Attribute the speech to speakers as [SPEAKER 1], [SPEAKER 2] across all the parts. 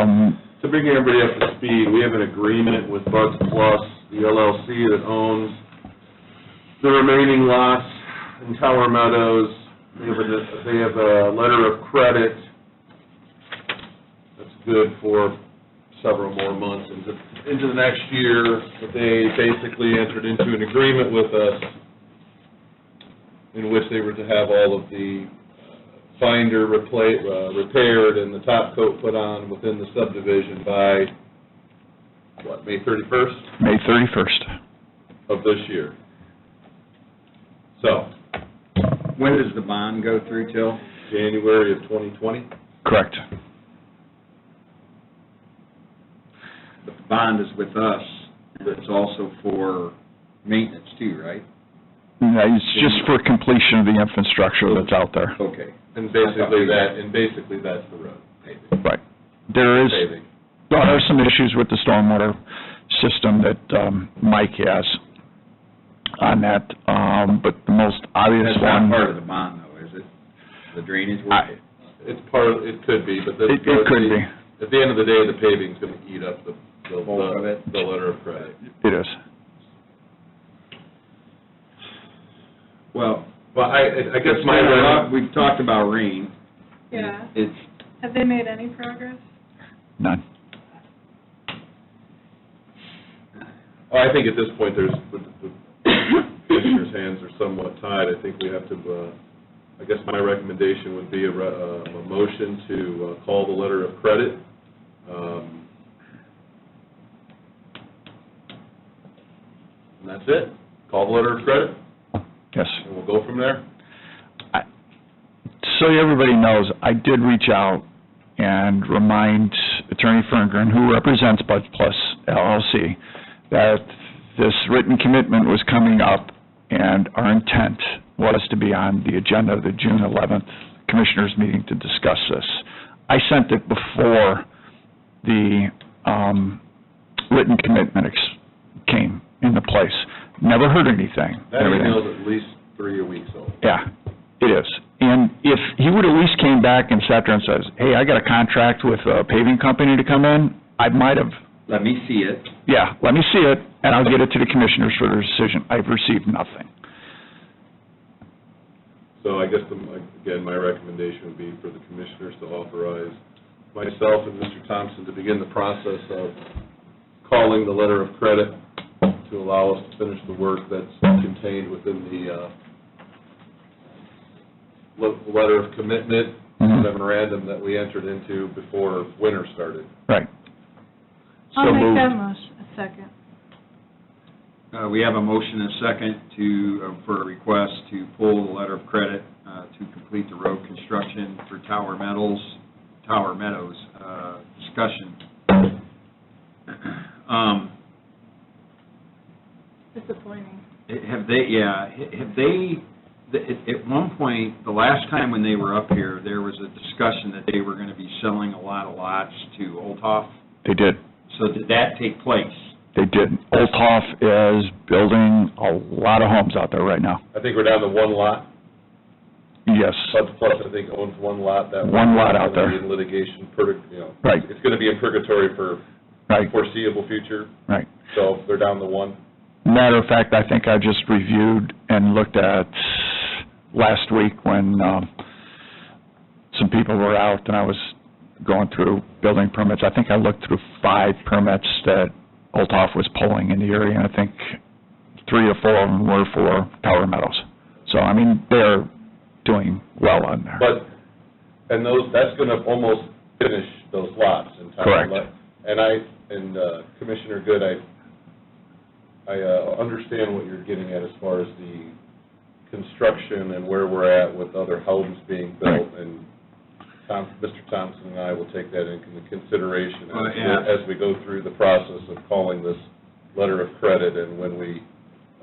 [SPEAKER 1] Um,
[SPEAKER 2] To bring everybody up to speed, we have an agreement with Buds Plus, the LLC that owns the remaining lots in Tower Meadows. They have a, they have a letter of credit that's good for several more months into, into the next year. But they basically entered into an agreement with us in which they were to have all of the finder repla uh, repaired and the top coat put on within the subdivision by, what, May thirty-first
[SPEAKER 1] May thirty-first.
[SPEAKER 2] of this year. So,
[SPEAKER 3] When does the bond go through till?
[SPEAKER 2] January of twenty twenty?
[SPEAKER 1] Correct.
[SPEAKER 3] The bond is with us, and it's also for maintenance too, right? Mm-hmm.
[SPEAKER 1] No, It's just for completion of the infrastructure that's out there.
[SPEAKER 3] Okay.
[SPEAKER 2] And basically that, and basically that's the road paving.
[SPEAKER 1] Right. There is,
[SPEAKER 2] Paving.
[SPEAKER 1] there are some issues with the stormwater system that um, Mike has on that, um, but the most obvious
[SPEAKER 3] That's not
[SPEAKER 1] one.
[SPEAKER 3] part of the bond though, is it? The drainage work?
[SPEAKER 1] I-
[SPEAKER 2] It's part, of- it could be, but this.
[SPEAKER 1] It- it could be.
[SPEAKER 2] At the end of the day, the paving's gonna eat up the, the,
[SPEAKER 3] Bulk of it.
[SPEAKER 2] the letter of credit.
[SPEAKER 1] It is.
[SPEAKER 3] Well,
[SPEAKER 2] But I, I guess my.
[SPEAKER 3] We've talked about rain.
[SPEAKER 4] Yeah,
[SPEAKER 3] It's,
[SPEAKER 4] have they made any progress?
[SPEAKER 1] None.
[SPEAKER 2] Well, I think at this point, there's, the the commissioner's hands are somewhat tied. I think we have to, uh, I guess my recommendation would be a, re- uh, a motion to uh, call the letter of credit. Um, And that's it. Call the letter of credit,
[SPEAKER 1] Yes.
[SPEAKER 2] and we'll go from there.
[SPEAKER 1] So everybody knows, I did reach out and remind Attorney Ferngren, who represents Bud Plus LLC, that this written commitment was coming up, and our intent was to be on the agenda of the June 11th Commissioners' meeting to discuss this. I sent it before the um, written commitment ex- came into place. Never heard anything.
[SPEAKER 2] That
[SPEAKER 1] Everything.
[SPEAKER 2] email's at least three weeks old.
[SPEAKER 1] Yeah, it is. And if he would at least came back and sat there and says, hey, I got a contract with a paving company to come in, I might have,
[SPEAKER 3] let me see it.
[SPEAKER 1] yeah, let me see it, and I'll get it to the commissioners for their decision. I've received nothing.
[SPEAKER 2] So I guess, the- again, my recommendation would be for the commissioners to authorize myself and Mr. Thompson to begin the process of calling the letter of credit to allow us to finish the work that's contained within the uh, le- letter of commitment
[SPEAKER 1] Mhm.
[SPEAKER 2] memorandum that we entered into before winter started.
[SPEAKER 1] Right.
[SPEAKER 4] I'll
[SPEAKER 1] So
[SPEAKER 4] make
[SPEAKER 1] moved.
[SPEAKER 4] that motion, a second.
[SPEAKER 3] Uh, we have a motion and a second to, uh, for a request to pull the letter of credit, uh, to complete the road construction for Tower Meadows, Tower Meadows, uh, discussion. Um,
[SPEAKER 4] Disappointing.
[SPEAKER 3] Have they, yeah, have they, at- at one point, the last time when they were up here, there was a discussion that they were going to be selling a lot of lots to Oltoff.
[SPEAKER 1] They did,
[SPEAKER 3] So did that take place?
[SPEAKER 1] they did. Olthoff is building a lot of homes out there right now.
[SPEAKER 2] I think we're down to one lot.
[SPEAKER 1] Yes,
[SPEAKER 2] Plus, plus I think owns one lot. That
[SPEAKER 1] One lot out
[SPEAKER 2] gonna be
[SPEAKER 1] there.
[SPEAKER 2] In litigation, purg- you know.
[SPEAKER 1] Right.
[SPEAKER 2] It's going to be in purgatory for
[SPEAKER 1] right,
[SPEAKER 2] foreseeable future.
[SPEAKER 1] right.
[SPEAKER 2] So they're down to one.
[SPEAKER 1] Matter of fact, I think I just reviewed and looked at last week when um, some people were out and I was going through building permits. I think I looked through five permits that Olthoff was pulling in the area, and I think three or four of them were for Tower Meadows. So, I mean, they're doing well on there.
[SPEAKER 2] But, and those, that's going to almost finish those lots in time.
[SPEAKER 1] Correct.
[SPEAKER 2] And I, and uh, Commissioner Good, I, I uh, understand what you're getting at as far as the construction and where we're at with other homes being built. And Tom, Mr. Thompson and I will take that into consideration
[SPEAKER 3] Well,
[SPEAKER 2] as
[SPEAKER 3] yeah.
[SPEAKER 2] we- as we go through the process of calling this letter of credit and when we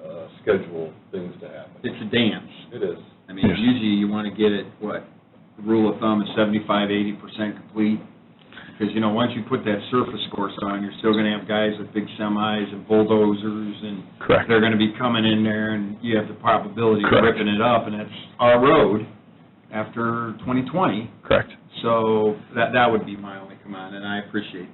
[SPEAKER 2] uh, schedule things to happen.
[SPEAKER 3] It's a dance.
[SPEAKER 2] It is.
[SPEAKER 3] I mean,
[SPEAKER 1] Yes.
[SPEAKER 3] usually you want to get it, what, the rule of thumb is 75, 80% complete? Because, you know, once you put that surface course on, you're still going to have guys with big semis and bulldozers and
[SPEAKER 1] Correct.
[SPEAKER 3] they're gonna be coming in there, and you have the probability of
[SPEAKER 1] Correct.
[SPEAKER 3] ripping it up, and it's our road after twenty twenty,
[SPEAKER 1] Correct.
[SPEAKER 3] So that, that would be my only comment, and I appreciate